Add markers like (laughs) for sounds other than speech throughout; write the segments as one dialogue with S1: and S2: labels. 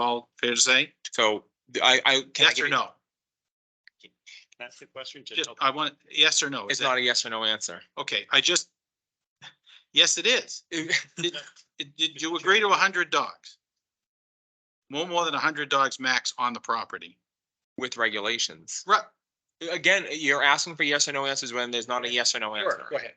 S1: all fair to say?
S2: So I, I. can I
S1: Yes
S2: give
S1: or
S2: you-
S1: no?
S3: That's the question. to
S1: Just,
S3: help-
S1: I want, yes or no? Is
S2: It's
S1: that-
S2: not e- a yes or no (laughs) answer.
S1: Okay, I just, yes, it is. Did- Did you agree to hundred dogs? No more than hundred dogs max on the property.
S2: (laughs) With regulations.
S1: Right,
S2: Again, you're asking for yes or no answers when there's not a yes or no answer.
S1: ahead.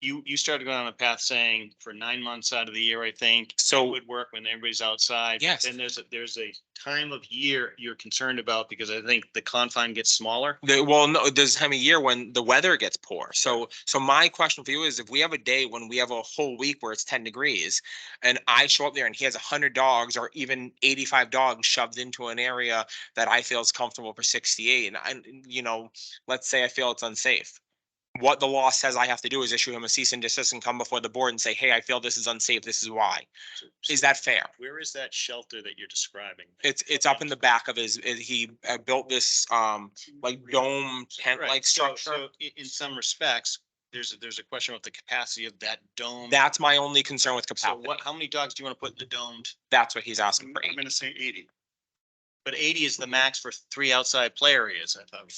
S3: You, you started going on a path saying for nine months out of the year, I think, it
S2: So
S3: would work when everybody's outside.
S2: Yes.
S3: Then there's, a there's a time of year you're concerned about because I think the confine gets smaller.
S2: The, well, no, there's time of year when the weather gets poor. So, so my question for you is if we have a day when we have a whole week where it's ten degrees and I show up there and he has a hundred dogs or even eighty-five dogs shoved into an area that I feel is comfortable for sixty-eight and I, you know, let's say I feel it's unsafe. What the law says I have to do is issue him a cease and desist and come before the board and say, hey, I feel this is unsafe. This is why. Is that fair?
S3: Where is that shelter that you're describing?
S2: It's, it's up in the back of his, he uh, built this, um, like dome tent-like
S3: Right, so-
S2: structure.
S3: so i- in some respects, there's, a- there's a question about the capacity of that dome.
S2: That's my only concern with
S3: So
S2: capacity.
S3: what, how many dogs do you want to put in the domed?
S2: That's what he's asking for.
S3: gonna say eighty. But eighty is the max for three outside play areas, I thought.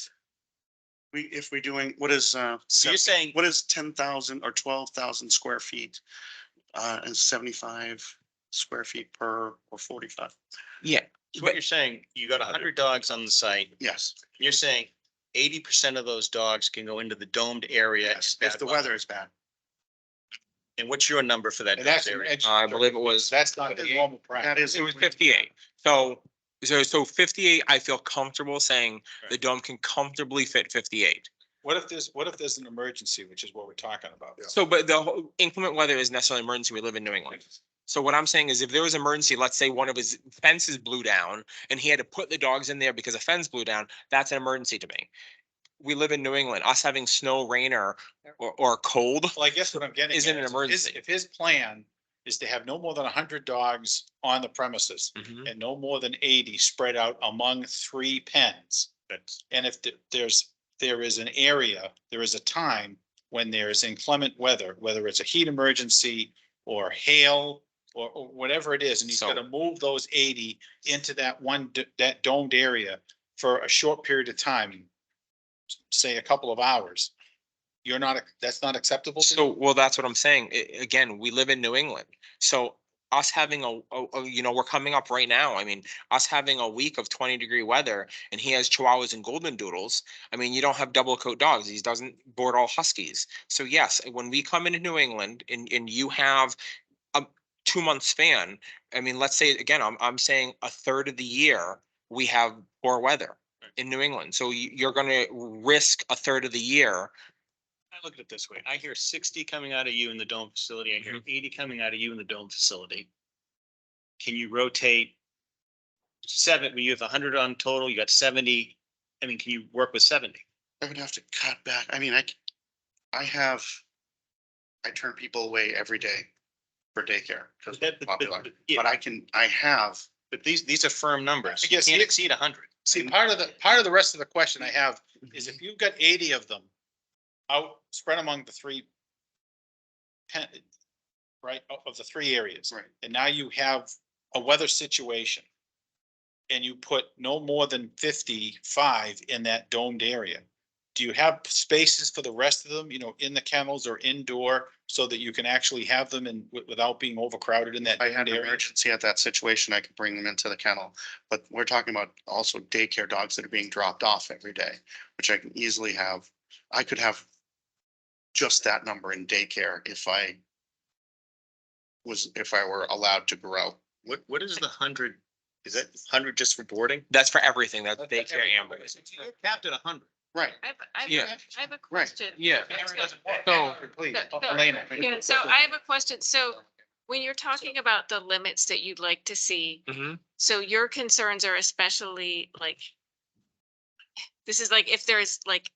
S4: We, if we're doing, what is, uh,
S3: So you're saying-
S4: What is ten thousand or twelve thousand square feet, uh, and seventy-five square feet per, or forty-five?
S2: Yeah.
S3: So what you're saying, you got a hundred dogs on the site,
S4: Yes,
S3: you're saying eighty percent of those dogs can go into the domed area. in
S4: yes, if
S3: bad
S4: the weather is bad.
S3: And what's your number for that domed area?
S2: I believe it was,
S1: That's not
S4: the
S1: normal
S4: That is.
S2: it was fifty-eight. So, so, so fifty-eight, I feel comfortable saying the dome can comfortably fit fifty-eight.
S1: What if there's, what if there's an emergency, which is what we're talking about?
S2: So, but the whole- inclement weather is necessarily an emergency. We live in New England. So what I'm saying is if there was an emergency, let's say one of his fences blew down and he had to put the dogs in there because a fence blew down, that's an emergency to me. We live in New England. Us having snow, rain or, or, or cold,
S1: Well, I guess what I'm getting.
S2: Isn't
S1: at is
S2: an
S1: if his-
S2: emergency.
S1: If his plan is to have no more than hundred dogs on the premises
S3: Mm-hmm.
S2: Mm-hmm.
S1: and no more than eighty spread out among three pens.
S3: That's-
S1: And if th- there's, there is an area, there is a time when there is inclement weather, whether it's a heat emergency or hail or, or whatever it is, and he's
S2: So-
S1: gonna move those eighty into that one, d- that domed area for a short period of time, s- say a couple of hours, you're not, ac- that's not acceptable? to you?
S2: So, well, that's what I'm saying. I- again, we live in New England. So us having a, a- a- you know, we're coming up right now. I mean, us having a week of twenty degree weather and he has chihuahuas and golden doodles. I mean, you don't have double coat dogs. He doesn't board all huskies. So yes, when we come into New England and, and you have a two month span, I mean, let's say, again, I'm, I'm saying a third of the year, we have poor weather in New England. So you, you're gonna risk a third of the year.
S3: I look at it this way, I hear sixty coming out of you in the dome facility, I
S2: Mm-hmm.
S3: hear eighty coming out of you in the dome facility. Can you rotate? Seven, when you have hundred on total, you got seventy, I mean, can you work with seventy?
S4: I would have to cut back. I mean, I, c- I have, I turn people away every day for daycare because
S3: That- but-
S4: popular.
S3: but- (laughs) yeah.
S4: But I can, I have,
S3: But these, these are firm numbers.
S1: I guess
S3: You Can't
S1: the-
S3: exceed hundred.
S1: See, part of the, part of the rest of the question I have is if you've got eighty of them out, spread among the three pen, right, of- of the three areas.
S4: Right.
S1: And now you have a weather situation. And you put no more than fifty-five in that domed area. Do you have spaces for the rest of them, you know, in the kennels or indoor, so that you can actually have them and wi- without being overcrowded in that?
S4: if I had
S1: domed
S4: an
S1: area?
S4: emergency at that situation, I could bring them into the kennel. But we're talking about also daycare dogs that are being dropped off every day, which I can easily have. I could have just that number in daycare if I was, if I were allowed to grow.
S3: What, what is the hundred? Is that hundred just for boarding?
S2: That's for everything. That's
S1: That's- that's
S2: daycare and.
S1: everything.
S3: You're capped at hundred.
S4: Right.
S5: I have, I have,
S2: Yeah.
S5: I have a question.
S1: Yeah.
S2: So-
S1: Please,
S5: No, no.
S1: Elena.
S5: Yeah, so I have a question. So when you're talking about the limits that you'd like to see,
S2: Mhm.
S5: so your concerns are especially like, this is like if there's like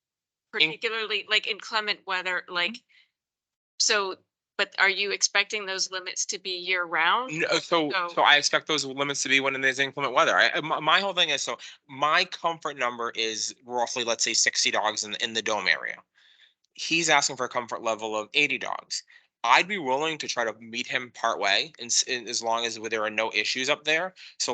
S5: particularly like inclement weather, like,
S2: Mm-hmm.
S5: so, but are you expecting those limits to be year round?
S2: No, uh, so,
S5: So-
S2: so I expect those limits to be when there's inclement weather. I, I- my, my whole thing is, so my comfort number is roughly, let's say sixty dogs in, in the dome area. He's asking for a comfort level of eighty dogs. I'd be willing to try to meet him partway and, s- and as long as there are no issues up there. So